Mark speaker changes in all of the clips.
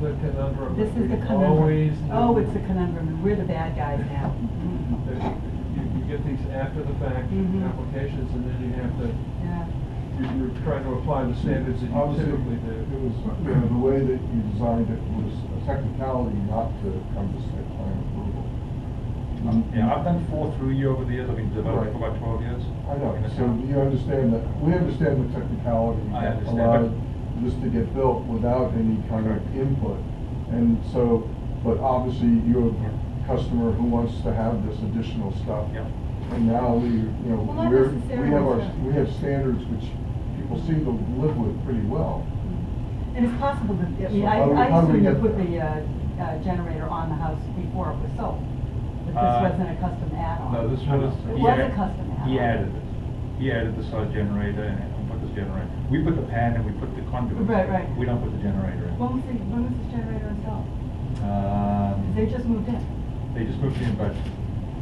Speaker 1: The conundrum.
Speaker 2: This is the
Speaker 1: We
Speaker 2: conundrum.
Speaker 1: Always.
Speaker 2: Oh,
Speaker 1: know
Speaker 2: it's the conundrum. We're the bad guys now. Mm-hmm.
Speaker 1: that You, you get these after the fact
Speaker 2: Mhm.
Speaker 1: applications and then you have to,
Speaker 2: Yeah.
Speaker 1: you- you're trying to apply the standards that you
Speaker 3: Obviously,
Speaker 1: typically do.
Speaker 3: it was, you know, the way that you designed it was a technicality not to come to site plan approval.
Speaker 4: Um, Yeah, I've done four through you over the years, I've been developing for about twelve years.
Speaker 3: I know,
Speaker 4: in the
Speaker 3: so
Speaker 4: town.
Speaker 3: you understand that, we understand the technicality.
Speaker 4: I
Speaker 3: that
Speaker 4: understand,
Speaker 3: Allowed this to get built without any kind of
Speaker 4: Correct.
Speaker 3: input. And so, but obviously you're a customer who wants to have this additional stuff.
Speaker 4: Yeah.
Speaker 3: And now we, you know,
Speaker 5: Well, not
Speaker 3: we're, we have our,
Speaker 5: necessarily, so-
Speaker 3: we have standards which people seem to live with pretty well.
Speaker 2: And it's possible that, I mean,
Speaker 3: So
Speaker 2: I,
Speaker 3: how do we-
Speaker 2: I
Speaker 3: how do we
Speaker 2: assume you
Speaker 3: get
Speaker 2: put
Speaker 3: there?
Speaker 2: the, uh, uh, generator on the house before it was sold. But
Speaker 4: Uh,
Speaker 2: this wasn't a custom add-on.
Speaker 4: No, this was.
Speaker 2: It
Speaker 4: he
Speaker 2: was a
Speaker 4: add-
Speaker 2: custom add-on.
Speaker 4: He added it. He added the solar generator and and put this generator. We put the pan and we put the conduit.
Speaker 2: Right, right.
Speaker 4: We don't put the generator in.
Speaker 2: When was the, when was this generator installed? 'Cause
Speaker 4: Um,
Speaker 2: They just moved in.
Speaker 4: They just moved in, but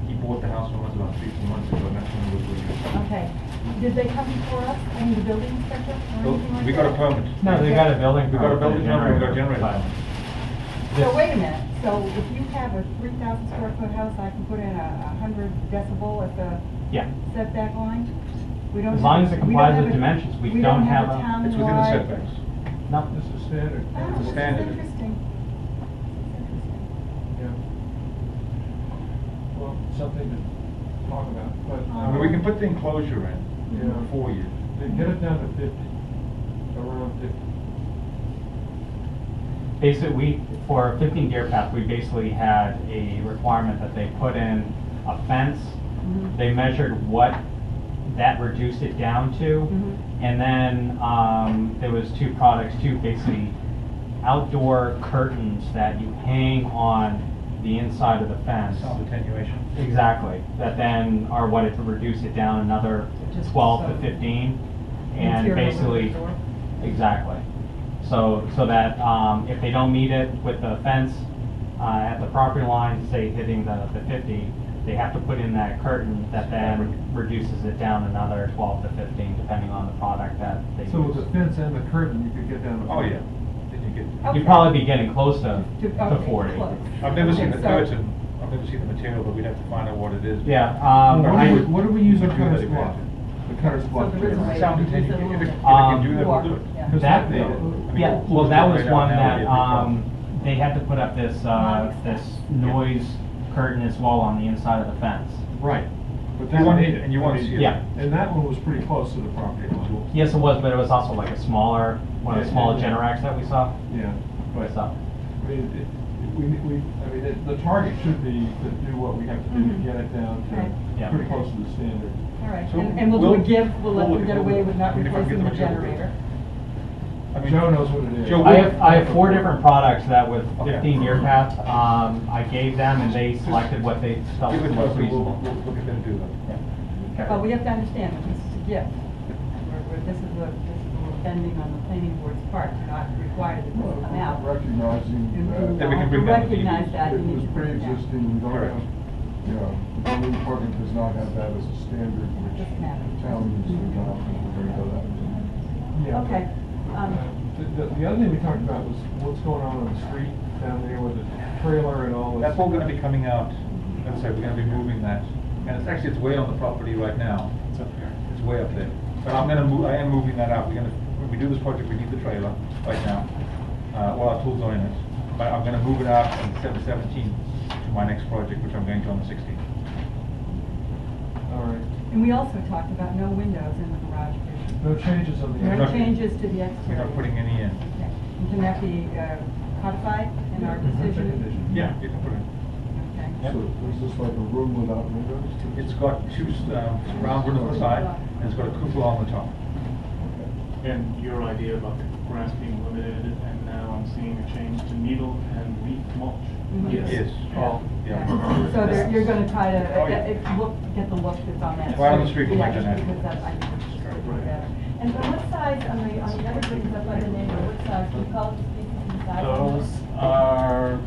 Speaker 4: he bought the house from us about three, four months ago, and that's when it was released.
Speaker 2: Okay. Did they come before us, I mean, the building inspector or
Speaker 4: So
Speaker 2: anything like that?
Speaker 4: We got a permit.
Speaker 6: No, they got a building.
Speaker 4: We got a
Speaker 6: permit,
Speaker 4: building number, we got a generator.
Speaker 6: plan.
Speaker 2: So wait a minute, so if you have a three thousand square foot house, I can put in a a hundred decibel at the
Speaker 6: Yeah,
Speaker 2: setback line? We don't
Speaker 6: As long
Speaker 2: have-
Speaker 6: as it
Speaker 2: we don't
Speaker 6: complies
Speaker 2: have
Speaker 6: with
Speaker 2: a-
Speaker 6: dimensions, we don't have a-
Speaker 2: town
Speaker 4: It's within the setbacks.
Speaker 6: no,
Speaker 1: This is standard.
Speaker 2: Oh,
Speaker 4: It's a
Speaker 2: this is
Speaker 4: standard.
Speaker 2: interesting. This is interesting.
Speaker 1: Yeah. Well, something to talk about, but.
Speaker 4: I
Speaker 2: Uh-huh.
Speaker 4: mean, we can put the enclosure in
Speaker 1: Yeah.
Speaker 4: for you.
Speaker 1: They Get it down to fifty, around fifty.
Speaker 6: basically, we, for fifteen deer path, we basically had a requirement that they put in a fence.
Speaker 2: Mhm.
Speaker 6: They measured what that reduced it down to.
Speaker 2: Mhm.
Speaker 6: And then, um, there was two products too, basically outdoor curtains that you hang on the inside of the fence.
Speaker 4: Sound attenuation.
Speaker 6: Exactly, that then are what it to reduce it down another
Speaker 2: Just
Speaker 6: twelve to
Speaker 2: so-
Speaker 6: fifteen, and
Speaker 2: Interior of the
Speaker 6: basically,
Speaker 2: door.
Speaker 6: exactly. So, so that, um, if they don't meet it with the fence, uh, at the property line, say hitting the, the fifty, they have to put in that curtain that then reduces it down another twelve to fifteen, depending on the product that they
Speaker 1: So with the
Speaker 6: use.
Speaker 1: fence and the curtain, you could get down to.
Speaker 4: Oh,
Speaker 1: 50.
Speaker 4: yeah. Then you get.
Speaker 6: You'd probably be getting close to,
Speaker 2: To-
Speaker 6: to
Speaker 2: okay,
Speaker 6: forty.
Speaker 2: close.
Speaker 4: I've never seen the
Speaker 2: Okay, so-
Speaker 4: curtain, I've never seen the material, but we'd have to find out what it is.
Speaker 6: Yeah, um,
Speaker 1: What
Speaker 6: I-
Speaker 1: do we, what do we use
Speaker 4: Do
Speaker 1: our
Speaker 4: that
Speaker 1: cutter's
Speaker 4: if we
Speaker 1: block?
Speaker 4: have to.
Speaker 3: The cutter's block.
Speaker 2: So there is a way-
Speaker 4: Sound attenuation,
Speaker 2: Just a
Speaker 4: if it, if it
Speaker 2: little
Speaker 6: Um,
Speaker 4: can do that, we'll do it.
Speaker 2: yeah.
Speaker 1: Because
Speaker 6: That-
Speaker 1: they-
Speaker 4: I mean,
Speaker 6: Yeah, well,
Speaker 4: who's
Speaker 6: that
Speaker 4: gonna
Speaker 6: was
Speaker 4: lay down
Speaker 6: one
Speaker 4: now
Speaker 6: that,
Speaker 4: is a big problem.
Speaker 6: um, they had to put up this, uh, this noise curtain as well on the inside of the fence.
Speaker 1: Right. But
Speaker 4: You
Speaker 1: that
Speaker 4: want
Speaker 1: one,
Speaker 4: it, and you want to see it.
Speaker 6: Yeah.
Speaker 1: And that one was pretty close to the property line.
Speaker 6: Yes, it was, but it was also like a smaller, one of the
Speaker 1: Yeah,
Speaker 6: smaller
Speaker 1: yeah, yeah.
Speaker 6: Generacs that we saw.
Speaker 1: Yeah, but,
Speaker 6: So,
Speaker 1: I mean, it, we, we, I mean, it- the target should be to do what we have to do to
Speaker 2: Mhm.
Speaker 1: get it down
Speaker 2: Right.
Speaker 1: to
Speaker 6: Yeah.
Speaker 1: pretty close to the standard.
Speaker 2: All right,
Speaker 4: So
Speaker 2: and and we'll do a
Speaker 4: we'll-
Speaker 2: give, we'll let
Speaker 4: we'll-
Speaker 2: them get away with not
Speaker 4: we'll- if I can
Speaker 2: replacing
Speaker 4: get
Speaker 2: the
Speaker 4: the material.
Speaker 2: generator.
Speaker 4: I mean,
Speaker 1: Joe knows what it is.
Speaker 4: Joe,
Speaker 6: I have, I have four different products that with
Speaker 4: Okay.
Speaker 6: fifteen year path, um, I gave them and they selected what they felt
Speaker 4: Give
Speaker 6: was
Speaker 4: it to us,
Speaker 6: most
Speaker 4: and we'll,
Speaker 6: reasonable.
Speaker 4: we'll look at them and do that.
Speaker 6: Okay.
Speaker 2: But we have to understand that this is a gift. And we're- we're- This is a, this is a bending on the planning board's part, We're not required to come out.
Speaker 3: Recognizing that.
Speaker 4: Then we can bring that with the
Speaker 2: uh, Recognize that, you
Speaker 3: It
Speaker 2: need
Speaker 3: was
Speaker 2: to bring it down.
Speaker 3: pre-existing, we don't
Speaker 4: Correct.
Speaker 3: have, you know, the building department does not have that as a standard, which
Speaker 2: Doesn't matter.
Speaker 3: the town needs to adopt, and we're gonna go that.
Speaker 1: Yeah.
Speaker 2: Okay,
Speaker 1: Uh,
Speaker 2: um,
Speaker 1: The, the- the other thing we talked about was what's going on on the street down there with the trailer and all this.
Speaker 4: That's all gonna be coming out, Let's say we're gonna be moving that, and it's actually, it's way on the property right now. It's up there. It's way up there, but I'm gonna move, I am moving that out, we're gonna, when we do this project, we need the trailer right now, uh, all our tools are in it, but I'm gonna move it out on the seventeenth to my next project, which I'm going to on the sixteenth.
Speaker 1: All right.
Speaker 2: and we also talked about no windows in the garage. addition.
Speaker 1: No changes on the.
Speaker 4: We're
Speaker 2: No
Speaker 4: not-
Speaker 2: changes to the
Speaker 4: We're
Speaker 2: exterior.
Speaker 4: not putting any in.
Speaker 2: Okay. And Can that be uh, codified in our
Speaker 1: Mhm.
Speaker 2: decision?
Speaker 4: Yeah, you can put it.
Speaker 2: Okay.
Speaker 3: So is this like a room without windows?
Speaker 4: It's got two um, round windows on the side, and it's got a cupola on the top. uh,
Speaker 7: And your idea about the grass being limited, and now I'm seeing a change to needle and leaf mulch.
Speaker 2: Mhm. Yes.
Speaker 4: Yes.
Speaker 7: Oh,
Speaker 4: Yeah.
Speaker 2: So there- you're gonna try to,
Speaker 4: Oh,
Speaker 2: uh,
Speaker 4: yeah.
Speaker 2: get, it- look, get the look that's on that.
Speaker 4: Right on the street, we'll
Speaker 2: Yeah,
Speaker 4: make that
Speaker 2: because
Speaker 4: happen.
Speaker 2: that- I think it's
Speaker 4: Right.
Speaker 2: better.
Speaker 5: And then what size, on the, on the other buildings up by the neighbor, what size, do you call it the species and size? on
Speaker 7: Those are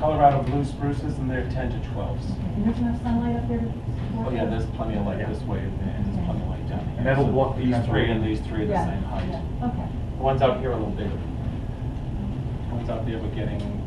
Speaker 7: Colorado blue spruces, and they're ten to twelves.
Speaker 2: Mm-hmm.
Speaker 5: And there's enough sunlight up there? to support
Speaker 8: Oh, yeah,
Speaker 5: those?
Speaker 8: there's plenty of light this way, and there's plenty of light down here.
Speaker 4: And that'll
Speaker 8: So
Speaker 4: block the
Speaker 8: These
Speaker 4: kind of-
Speaker 8: three and these three are the
Speaker 2: Yeah,
Speaker 8: same height.
Speaker 2: yeah, Okay.
Speaker 8: The ones out here are a little bigger.
Speaker 7: one's out there, but getting